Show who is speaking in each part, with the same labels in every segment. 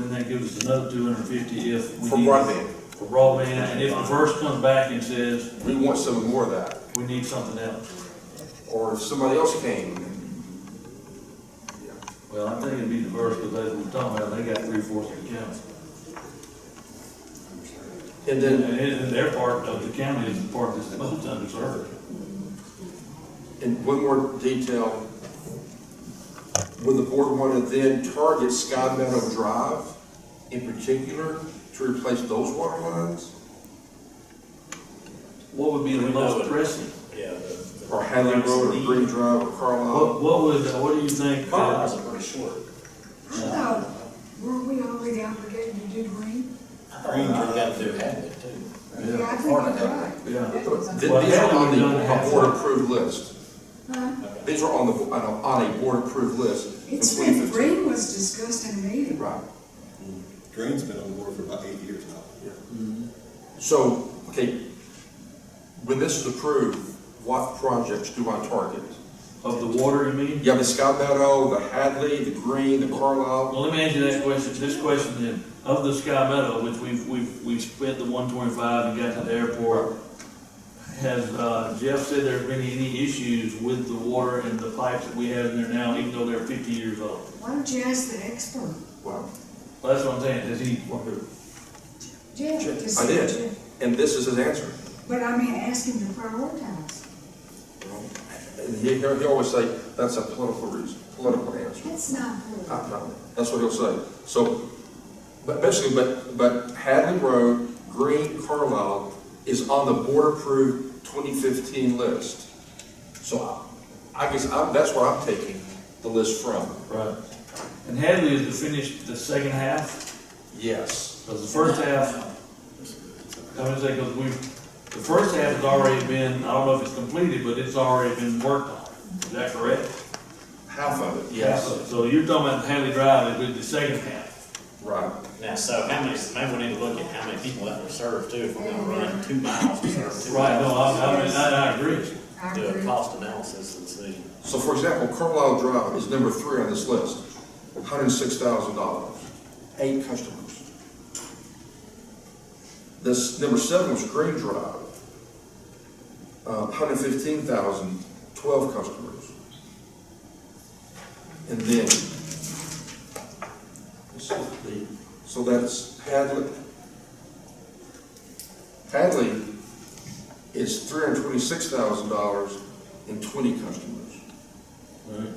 Speaker 1: give us another two hundred and fifty if we
Speaker 2: For
Speaker 1: need.
Speaker 2: broadband.
Speaker 1: For broadband, and if the first comes back and says,
Speaker 2: We want some more of that,
Speaker 1: we need something else.
Speaker 2: or if somebody else came.
Speaker 1: Well, I think it'd be the first, because as we're talking about, they got three fourths of the county.
Speaker 2: And
Speaker 1: And,
Speaker 2: then,
Speaker 1: and their part of the county is the part that's most underserved.
Speaker 2: and one more detail, when the board wanted then target Sky Meadow Drive in particular to replace those water lines,
Speaker 1: What would be the
Speaker 3: We know
Speaker 1: most
Speaker 3: it.
Speaker 1: pressing?
Speaker 3: Yeah. the-
Speaker 2: or Hadley Road, or Green Drive, or Carlisle.
Speaker 1: What, what would, what do you think? uh,
Speaker 3: The Miles are pretty short.
Speaker 4: I thought, weren't we already obligated to do green?
Speaker 3: I thought you got to do Hadley too.
Speaker 4: Yeah, I think I'm right.
Speaker 1: Yeah.
Speaker 2: Th- These are on the a board-approved list.
Speaker 4: Huh?
Speaker 2: These are on the, on a, on a board-approved list in
Speaker 4: Uh, It's when
Speaker 2: 2015.
Speaker 4: green was discussed in a meeting.
Speaker 2: Right.
Speaker 5: Green's been on the board for about eight years now.
Speaker 2: So, okay, when this is approved, what projects do I target?
Speaker 1: Of the water, you mean?
Speaker 2: You have the Sky Meadow, the Hadley, the Green, the Carlisle.
Speaker 1: Well, let me ask you that question, this question then, of the Sky Meadow, which we've, we've, we've spent the one twenty-five and got to the airport, has, uh, Jeff said there's been any issues with the water and the pipes that we have in there now, even though they're fifty years old?
Speaker 4: Why don't you ask the expert?
Speaker 2: Wow.
Speaker 1: Well, That's what I'm saying, does he,
Speaker 4: Jeff, to
Speaker 2: I
Speaker 4: see what
Speaker 2: did,
Speaker 4: Jeff.
Speaker 2: and this is his answer.
Speaker 4: But I mean, ask him to prioritize.
Speaker 2: And he, he'll he'll always say, that's a political reason, political answer.
Speaker 4: That's not good.
Speaker 2: I know. That's what he'll say. So, but basically, but, but Hadley Road, Green, Carlisle is on the board-approved 2015 list. So I I guess I'm, that's where I'm taking the list from.
Speaker 1: right, and Hadley is to finish the second half,
Speaker 2: Yes.
Speaker 1: because the first half, I would say, because we've, the first half has already been, I don't know if it's completed, but it's already been worked on, is that correct?
Speaker 2: Half of it,
Speaker 1: So so you're talking about Haley Drive is with the second half.
Speaker 2: Right.
Speaker 3: Now, so how many, maybe we need to look at how many people that were served too, if we're gonna run two miles, we serve two
Speaker 1: Right, no,
Speaker 3: miles.
Speaker 1: I, I mean, I, I agree.
Speaker 4: I
Speaker 3: Do a
Speaker 4: agree.
Speaker 3: cost analysis and see.
Speaker 2: So for example, Carlisle Drive is number three on this list, $106,000, eight customers. This, number seven was Green Drive, uh, 115,000, 12 customers. And then, so the- so that's Hadley. Hadley is $326,000 and 20 customers.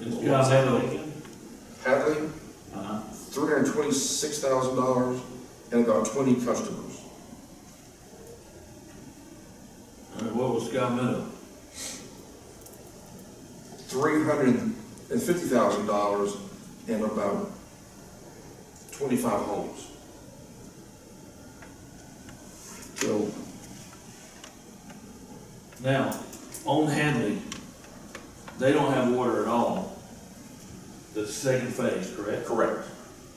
Speaker 1: It's got Hadley.
Speaker 2: Hadley,
Speaker 1: Uh-huh.
Speaker 2: three hundred twenty-six thousand dollars and about twenty customers.
Speaker 1: All right, What was Sky Meadow?
Speaker 2: Three hundred and fifty thousand dollars and about twenty-five homes. So,
Speaker 1: Now, on Hadley, they don't have water at all. The second phase, correct?
Speaker 2: correct,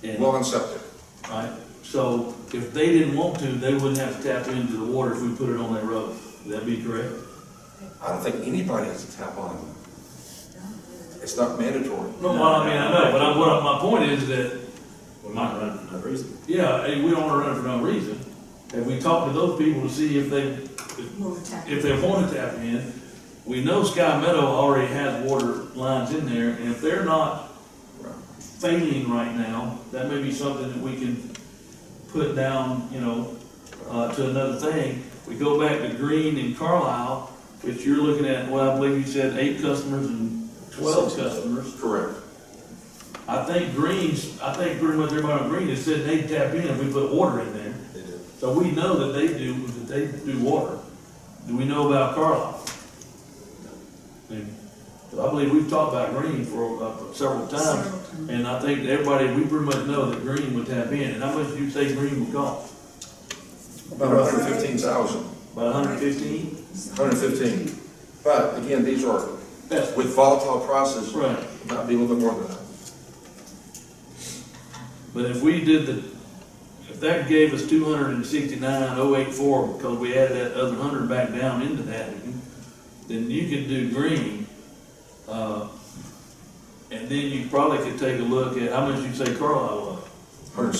Speaker 1: And,
Speaker 2: well and septic.
Speaker 1: right, so if they didn't want to, they wouldn't have to tap into the water if we put it on that road. Would that be correct?
Speaker 2: I don't think anybody has to tap on it. It's not mandatory.
Speaker 1: No, well, I mean, I know, but I, what, I- my point is that
Speaker 3: We might run for no reason.
Speaker 1: Yeah, hey, we don't wanna run it for no reason. And we talked to those people to see if they,
Speaker 4: Move tax.
Speaker 1: if they wanted to tap in. We know Sky Meadow already has water lines in there, and if they're not failing right now, that may be something that we can put down, you know, uh, to another thing. We go back to Green and Carlisle, which you're looking at, well, I believe you said eight customers and twelve customers.
Speaker 2: Correct.
Speaker 1: I think Greens, I think pretty much everybody on Green has said they tap in if we put water in there.
Speaker 5: They do.
Speaker 1: So we know that they do, that they do water. Do we know about Carlisle? And I believe we've talked about Green for uh, several times,
Speaker 4: Several times.
Speaker 1: and I think that everybody, we pretty much know that Green would tap in. And how much do you say Green would cost?
Speaker 2: About a hundred fifteen thousand,
Speaker 1: About hundred fifteen?
Speaker 2: hundred fifteen. But again, these are,
Speaker 1: That's
Speaker 2: with volatile prices,
Speaker 1: right.
Speaker 2: might be a little bit more than that.
Speaker 1: But if we did the, if that gave us two hundred and sixty-nine oh eight four, because we added that other hundred back down into that, then you could do green, uh, and then you probably could take a look at, how much you say Carlisle was?
Speaker 2: Hundred